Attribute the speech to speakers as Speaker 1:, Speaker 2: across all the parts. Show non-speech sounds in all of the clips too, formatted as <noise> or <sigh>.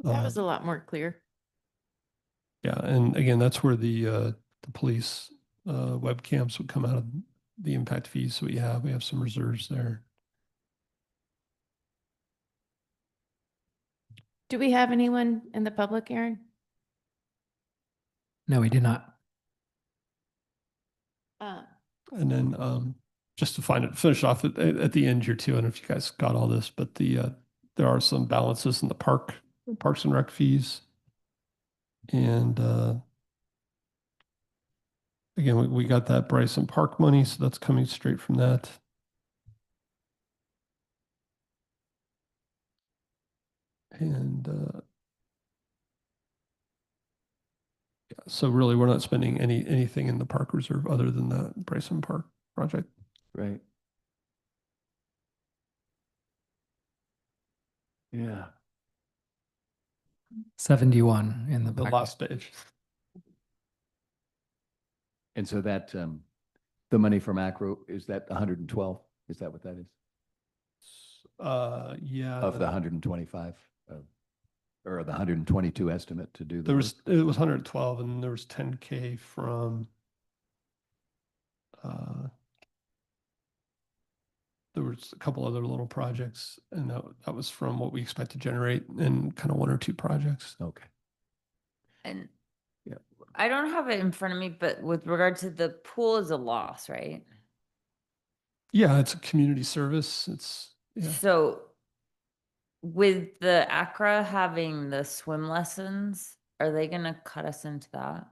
Speaker 1: That
Speaker 2: Uh,
Speaker 1: was a lot more clear.
Speaker 2: Yeah, and again, that's where the uh the police uh webcams would come out of the impact fees that we have. We have some reserves there.
Speaker 1: Do we have anyone in the public, Aaron?
Speaker 3: No, we do not.
Speaker 1: Uh,
Speaker 2: And then um just to find it finish off at, at at the end here too. I don't know if you guys got all this, but the uh there are some balances in the park, parks and rec fees. And uh again, we, we got that Bryson Park money, so that's coming straight from that. And uh So really, we're not spending any, anything in the park reserve other than the Bryson Park project.
Speaker 4: Right. Yeah.
Speaker 3: Seventy-one in the.
Speaker 2: The
Speaker 3: packet.
Speaker 2: last page.
Speaker 4: And so that, um, the money from Acro, is that hundred and twelve? Is that what that is?
Speaker 2: Uh, yeah.
Speaker 4: Of the hundred and twenty-five? uh, Or the hundred and twenty-two estimate to do the.
Speaker 2: There was,
Speaker 4: work?
Speaker 2: it was hundred and twelve and there was ten K from uh, there was a couple other little projects and that, that was from what we expect to generate in kind of one or two projects.
Speaker 4: Okay.
Speaker 5: And
Speaker 4: Yeah.
Speaker 5: I don't have it in front of me, but with regard to the pool is a loss, right?
Speaker 2: Yeah, it's a community service. It's, yeah.
Speaker 5: So with the Accra having the swim lessons, are they gonna cut us into that?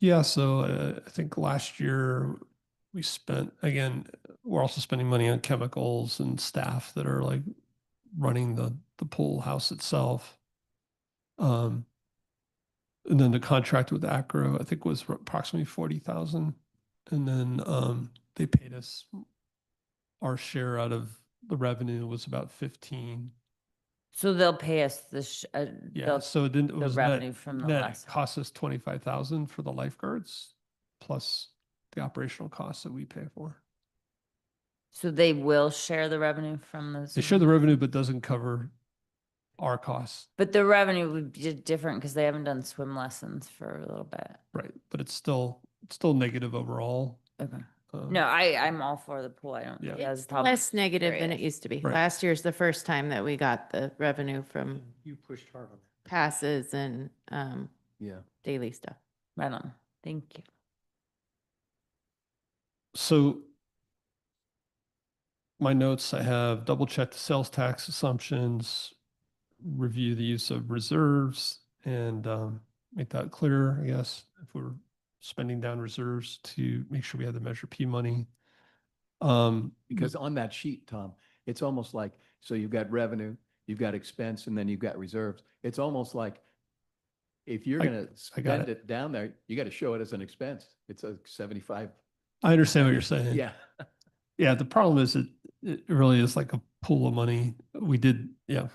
Speaker 2: Yeah, so uh, I think last year we spent, again, we're also spending money on chemicals and staff that are like running the the pool house itself. Um, and then the contract with Acro, I think was approximately 40,000. And then um, they paid us our share out of the revenue was about 15.
Speaker 5: So they'll pay us the, sh- uh,
Speaker 2: Yeah,
Speaker 5: they'll-
Speaker 2: so it didn't, it
Speaker 5: the
Speaker 2: was net
Speaker 5: revenue from the
Speaker 2: that
Speaker 5: lesson.
Speaker 2: costs us twenty-five thousand for the lifeguards, plus the operational costs that we pay for.
Speaker 5: So they will share the revenue from those.
Speaker 2: They share the revenue, but doesn't cover our costs,
Speaker 5: But the revenue would be different because they haven't done swim lessons for a little bit.
Speaker 2: right? But it's still, it's still negative overall.
Speaker 5: Okay.
Speaker 2: um,
Speaker 5: No, I, I'm all for the pool. I don't.
Speaker 2: Yeah.
Speaker 5: Yeah, it's top-
Speaker 1: Less negative than it
Speaker 5: curious.
Speaker 1: used to be.
Speaker 2: Right.
Speaker 1: Last year's the first time that we got the revenue from
Speaker 4: Mm-hmm. You pushed hard on that.
Speaker 1: passes and um,
Speaker 4: Yeah.
Speaker 1: daily stuff.
Speaker 5: Right on. Thank you.
Speaker 2: So my notes, I have double check the sales tax assumptions, review the use of reserves and um, make that clearer, I guess, if we're spending down reserves to make sure we have the Measure P money. Um,
Speaker 4: Because on that sheet, Tom, it's almost like, so you've got revenue, you've got expense, and then you've got reserves. It's almost like if you're
Speaker 2: I-
Speaker 4: gonna
Speaker 2: I got
Speaker 4: spend it down there, you gotta show it as an expense. It's a seventy-five.
Speaker 2: I understand what you're saying.
Speaker 4: Yeah.
Speaker 2: Yeah, the problem is it it really is like a pool of money. We did, yeah.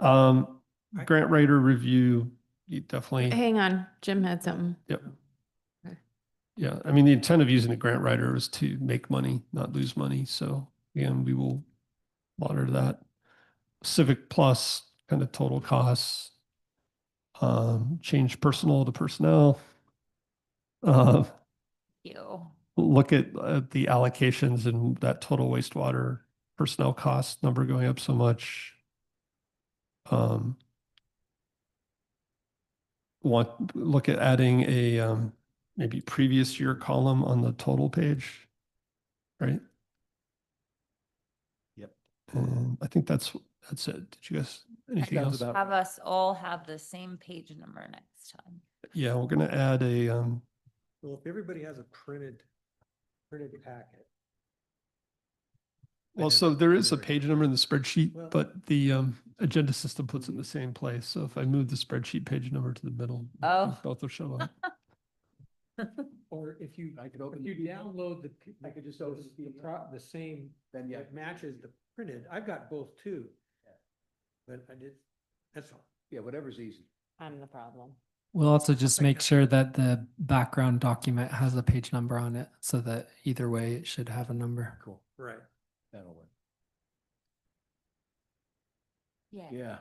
Speaker 2: Um, grant writer review, you definitely.
Speaker 1: Hang on, Jim had something.
Speaker 2: Yep.
Speaker 1: Okay.
Speaker 2: Yeah, I mean, the intent of using the grant writer was to make money, not lose money. So again, we will monitor that. Civic Plus kind of total costs. Um, change personnel to personnel. Uh,
Speaker 5: You.
Speaker 2: look at, at the allocations and that total wastewater personnel cost number going up so much. Um, want, look at adding a, um, maybe previous year column on the total page, right?
Speaker 4: Yep.
Speaker 2: And I think that's, that's it. Did you guys, anything
Speaker 4: Sounds
Speaker 2: else?
Speaker 4: about
Speaker 5: Have
Speaker 4: right.
Speaker 5: us all have the same page number next time.
Speaker 2: Yeah, we're gonna add a, um,
Speaker 6: Well, if everybody has a printed, printed packet.
Speaker 2: Well,
Speaker 6: have
Speaker 2: so
Speaker 6: it
Speaker 2: there is a
Speaker 6: delivered.
Speaker 2: page number in the spreadsheet,
Speaker 6: Well-
Speaker 2: but the um, agenda system puts it in the same place. So if I move the spreadsheet page number to the middle, I think
Speaker 5: Oh.
Speaker 2: both will show up.
Speaker 4: <laughs>
Speaker 6: Or if you,
Speaker 4: I could
Speaker 6: if
Speaker 4: open.
Speaker 6: you
Speaker 4: the PDF,
Speaker 6: download the, p-
Speaker 4: I could just
Speaker 6: those-
Speaker 4: open the
Speaker 6: the
Speaker 4: PDF.
Speaker 6: pro, the same,
Speaker 4: Then yeah,
Speaker 6: it matches the printed. I've got both too. But I did, that's all.
Speaker 4: yeah, whatever's easy.
Speaker 1: I'm the problem.
Speaker 3: We'll also just
Speaker 6: Like
Speaker 3: make
Speaker 6: that.
Speaker 3: sure that the background document has a page number on it so that either way it should have a number.
Speaker 4: Cool.
Speaker 6: Right.
Speaker 4: That'll work.
Speaker 5: Yeah.
Speaker 4: Yeah.